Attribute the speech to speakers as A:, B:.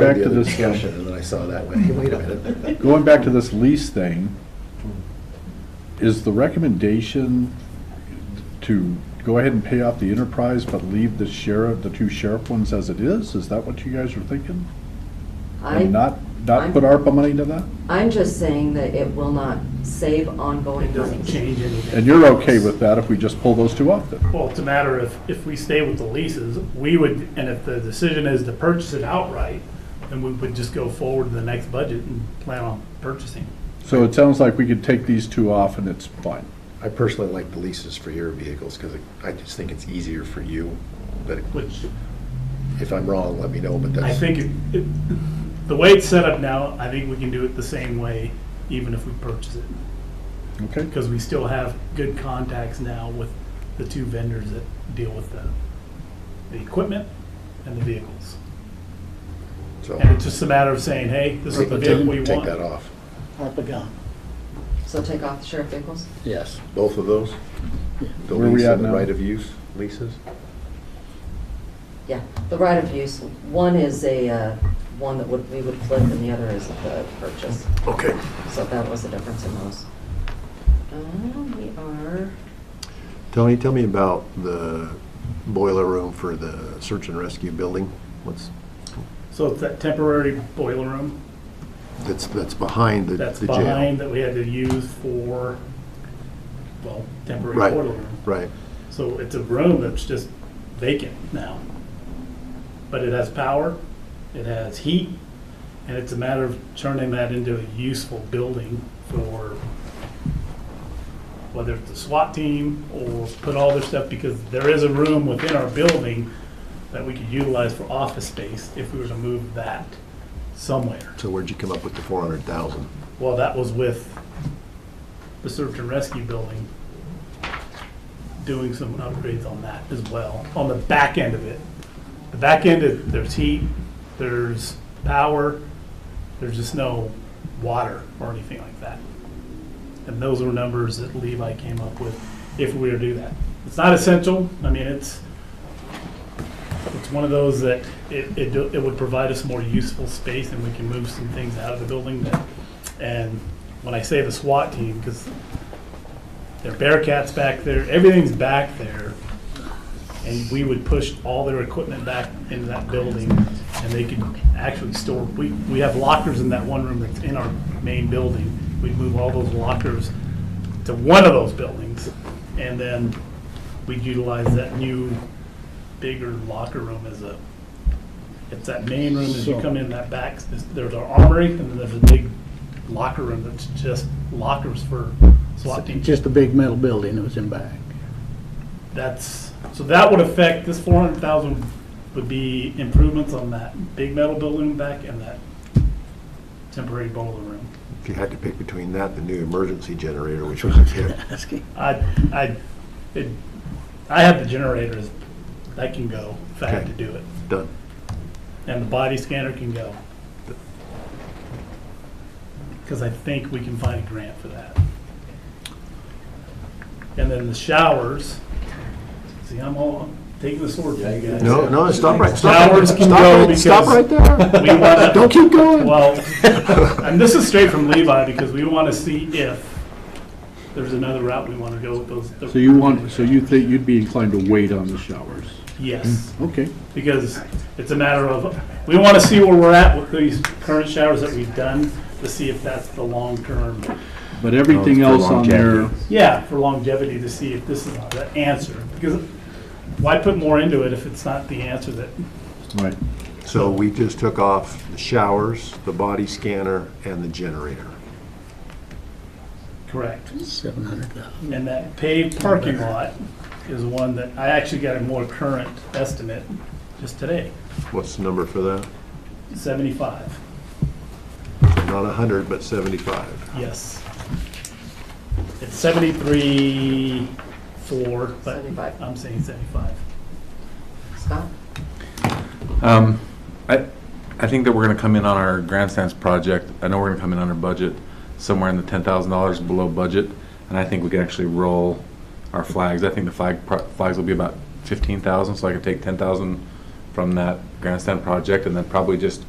A: Back to
B: the other
A: this, um,
B: discussion, and then I saw that way. Wait a minute.
A: Going back to this lease thing, is the recommendation to go ahead and pay off the enterprise but leave the sheriff, the two sheriff ones as it is? Is that what you guys are thinking?
C: I,
A: And not, not
C: I'm-
A: put ARPA money into that?
C: I'm just saying that it will not save ongoing
D: It doesn't
C: money.
D: change anything.
A: And you're okay with that if we just pull those two off then?
D: Well, it's a matter of, if we stay with the leases, we would, and if the decision is to purchase it outright, then we would just go forward to the next budget and plan on purchasing.
A: So it sounds like we could take these two off and it's fine.
B: I personally like the leases for your vehicles, because I just think it's easier for you, but
D: Which
B: if I'm wrong, let me know, but
D: I
B: that's.
D: think, it- it- the way it's set up now, I think we can do it the same way, even if we purchase it.
A: Okay?
D: Because we still have good contacts now with the two vendors that deal with the, the equipment and the vehicles.
B: so
D: And it's just a matter of saying, hey, this is the vehicle we
B: Take
D: want.
B: take that off.
E: ARPA gone.
C: So take off the sheriff vehicles?
E: Yes.
B: Both of those? The
A: Where we
B: lease
A: at
B: and the
A: now?
B: right of use leases?
C: Yeah, the right of use, one is a, uh, one that would, we would flip and the other is the purchase.
B: Okay.
C: So that was the difference in those. Um, We are,
B: Tony, tell me about the boiler room for the search and rescue building. What's,
D: So it's that temporary boiler room
B: that's, that's behind the
D: that's
B: the jail.
D: behind that we had to use for, well, temporary
B: Right,
D: boiler room.
B: Right.
D: So it's a room that's just vacant now. But it has power, it has heat, and it's a matter of turning that into a useful building for whether it's the SWAT team or put all their stuff, because there is a room within our building that we could utilize for office space if we were to move that somewhere.
B: So where'd you come up with the 400,000?
D: Well, that was with the search and rescue building, doing some upgrades on that as well, on the back end of it. The back end, is- there's heat, there's power, there's just no water or anything like that. And those were numbers that Levi came up with if we were to do that. It's not essential, I mean, it's, it's one of those that it, it, do- it would provide us more useful space and we can move some things out of the building that, and when I say the SWAT team, because there are Bearcats back there, everything's back there. And we would push all their equipment back into that building and they could actually store, we, we have lockers in that one room that's in our main building. We'd move all those lockers to one of those buildings and then we'd utilize that new bigger locker room as a, it's that main room as you come in that back, there's our armory, and then there's a big locker room that's just lockers for SWAT teams.
E: Just a big metal building that was in back.
D: That's, so that would affect, this four hundred thousand would be improvements on that big metal building back and that temporary boiler room.
B: If you had to pick between that, and the new emergency generator, which was a hit.
E: Asking.
D: I, I, it, I have the generators, that can go if I had to
B: Okay.
D: do it,
B: Done.
D: and the body scanner can go. Because I think we can find a grant for that. And then the showers, see, I'm all, I'm taking the sword for you guys.
B: No, no, stop right, stop.
D: Showers can
B: stop
D: go
B: right- Stop
D: because-
B: right there.
D: We wanna-
B: Don't keep going.
D: Well, and this is straight from Levi, because we want to see if there's another route we want to go with those.
F: So you want, so you think you'd be inclined to wait on the showers?
D: Yes,
F: Okay.
D: because it's a matter of, we want to see where we're at with these current showers that we've done, to see if that's the long-term,
F: But everything
B: Oh, for
F: else on there,
B: longevity.
D: yeah, for longevity, to see if this is the answer. Because why put more into it if it's not the answer that,
A: Right.
B: So we just took off the showers, the body scanner, and the generator.
D: correct?
E: Seven hundred thousand.
D: And that paved parking lot is one that, I actually got a more current estimate just today,
B: What's the number for that?
D: 75,
B: Not 100, but 75.
D: yes. It's 73, 4, but
C: 75.
D: I'm saying 75.
C: Scott?
G: Um, I, I think that we're gonna come in on our grandstands project, I know we're gonna come in under budget, somewhere in the ten thousand dollars below budget, and I think we can actually roll our flags, I think the flag, pro- flags will be about fifteen thousand, so I could take ten thousand from that grandstand project, and then probably just